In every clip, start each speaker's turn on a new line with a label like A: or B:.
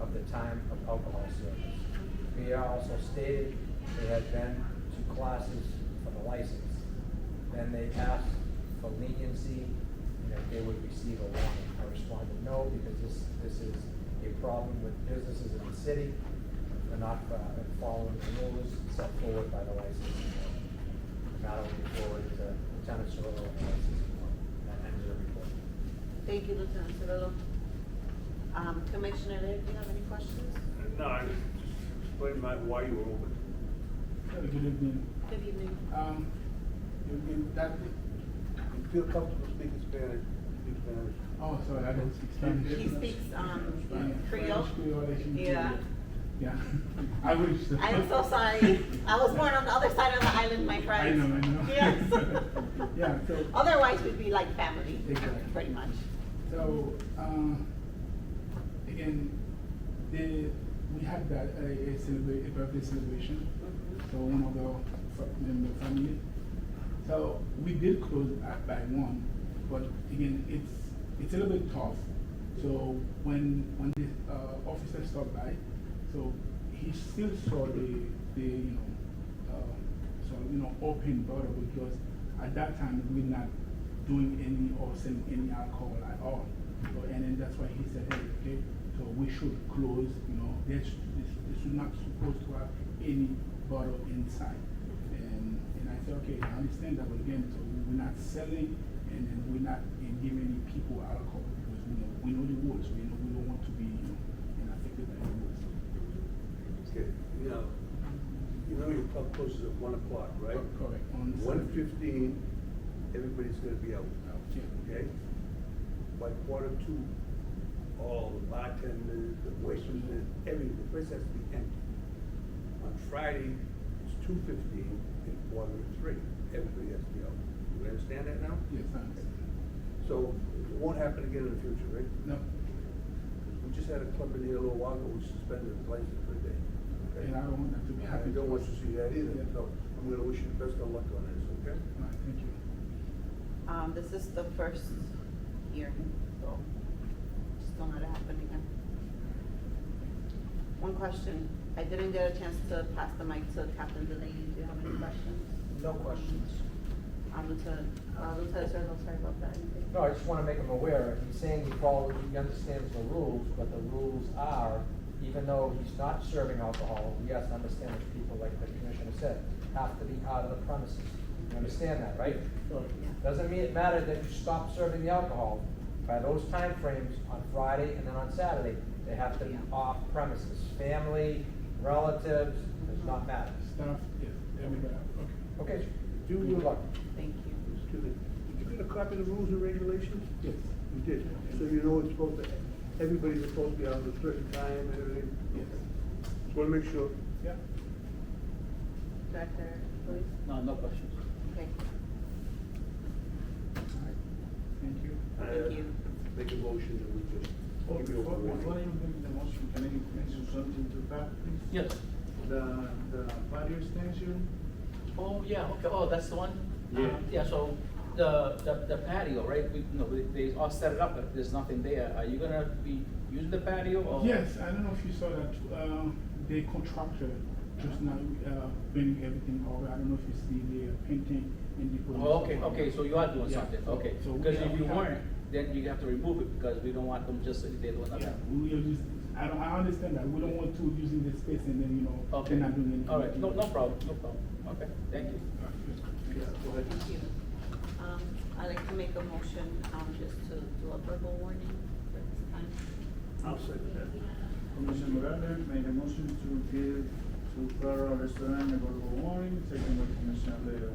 A: of the time of alcohol service. Pierre also stated they had been to classes for the license. Then they asked for leniency and that they would receive a warning. I responded, no, because this, this is a problem with businesses in the city. They're not uh, following the rules set forward by the licensing board. Not only forward to Lieutenant Cirillo and the licensing board. That ends the report.
B: Thank you, Lieutenant Cirillo. Um, Commissioner Lee, do you have any questions?
C: No, I was just explaining my, why you were open.
D: Good evening.
B: Good evening.
D: Um, you, you, that,
E: You feel comfortable speaking Spanish, speak Spanish.
D: oh, sorry, I don't speak Spanish.
B: He speaks, um,
D: Spanish,
B: Creole.
D: Spanish, Creole, I should
B: Yeah.
D: do. Yeah, I wish. so.
B: I'm so sorry. I was born on the other side of the island, my
D: I
B: friend.
D: know, I know.
B: Yes.
D: Yeah, so.
B: Otherwise, we'd be like family,
D: Exactly.
B: pretty much.
D: So, um, again, the, we had that, a, a celebra- a birthday celebration
B: Mm-hmm.
D: for one of our, fa- member family. So we did close at by one, but again, it's, it's a little bit tough. So when, when the, uh, officer stopped by, so he still saw the, the, you know, uh, so, you know, open bottle because at that time, we're not doing any or selling any alcohol at all. So, and then that's why he said, hey, okay, so we should close, you know, there's, this, this is not supposed to have any bottle inside. And, and I said, okay, I understand that, but again, so we're not selling and then we're not uh, giving people alcohol because we know, we know the rules, we know, we don't want to be, you know, and affected by the rules.
E: Okay, now, you know your pub closes at one o'clock, right?
D: Oh, Correct, on
E: One
D: Saturday.
E: fifteen, everybody's gonna be out,
D: Yeah.
E: okay? By quarter two, all the bartenders, the waitresses, everything, the place has to be empty. On Friday, it's two fifteen and quarter to three, everybody has to be out. You understand that now?
D: Yes, I understand.
E: So it won't happen again in the future, right?
D: No,
E: We just had a club in here a little while ago, we suspended the license for a day. okay?
D: and I don't want that to be
E: I
D: happening.
E: don't want you to see that either,
D: Yeah.
E: so I'm gonna wish you the best of luck on this, okay?
D: All right, thank you.
B: Um, this is the first year, so just don't let it happen again. One question. I didn't get a chance to pass the mic to Captain Delaney. Do you have any questions?
A: No questions.
B: Um, Lieutenant, uh, Lieutenant Cirillo, sorry about that. Anything?
A: No, I just wanna make him aware, he's saying he follows, he understands the rules, but the rules are, even though he's not serving alcohol, yes, I understand that people, like the commissioner said, have to be out of the premises. You understand that, right?
D: Correct.
B: Yeah.
A: Doesn't mean it mattered that you stop serving the alcohol. By those time frames on Friday and then on Saturday, they have to be
B: Yeah.
A: off premises. Family, relatives, does not matter.
D: Staff, yes, everybody, okay.
A: Okay,
E: Do you-
A: good luck.
B: Thank you.
E: Excuse me, did you get a copy of the rules and regulations?
D: Yes,
E: You did, so you know it's supposed to, everybody's supposed to be out at a certain time and everything.
D: yes,
E: Just wanna make sure.
D: yeah.
B: Director, please.
F: No, no questions.
B: Okay,
D: All right, thank you.
B: Thank
E: Uh,
B: you.
E: Make a motion that we just
G: Oh,
E: give you a
G: Before before
E: warning.
G: you make the motion, can I mention something to that, please?
F: Yes.
G: The, the fire extension,
F: Oh, yeah, okay, oh, that's the one?
G: Yeah.
F: Um, Yeah, so the, the the patio, right, we, no, they- they all set it up, but there's nothing there. Are you gonna be using the patio or?
D: Yes, I don't know if you saw that, um, the contractor just now, uh, bringing everything over, I don't know if you see the uh, painting and the.
F: Oh, okay, okay, so you are doing
D: Yeah,
F: something,
D: so-
F: okay.
D: so we
F: Because
D: have-
F: if you
D: we have-
F: weren't, then you have to remove it because we don't want them just sitting there doing
D: Yeah,
F: nothing.
D: we will use, I don't, I understand that, we don't want to using the space and then, you know,
F: Okay.
D: they're not doing anything.
F: All right, no, no problem, no problem. Okay, thank you.
D: All right, yes, thank you.
E: Yeah, go ahead.
B: thank you. Um, I'd like to make a motion, um, just to do a verbal warning for this time.
E: I'll second that.
G: Commissioner Morales made a motion to give to Flora Restaurant a verbal warning, second by Commissioner Leo.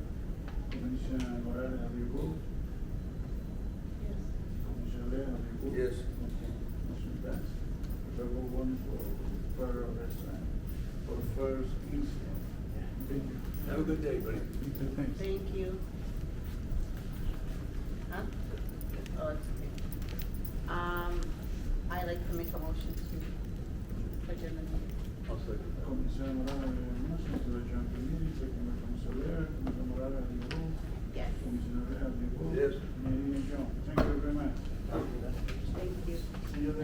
G: Commissioner Morales, have you voted?
B: Yes.
G: Commissioner Leo, have you voted?
E: Yes.
G: Okay, motion passed. Verbal warning for Flora Restaurant for first incident. Thank you.
E: Have a good day, buddy.
D: You too, thanks.
B: Thank you. Huh? Oh, it's okay. Um, I'd like to make a motion to adjourn the meeting.
E: I'll second that.
G: Commissioner Morales made a motion to adjourn the meeting, second by Commissioner Leo. Commissioner Morales, have you voted?
B: Yes,
G: Commissioner Leo, have you voted?
E: Yes.
G: Mayor Young, thank you very much.
B: thank you.
G: See you there.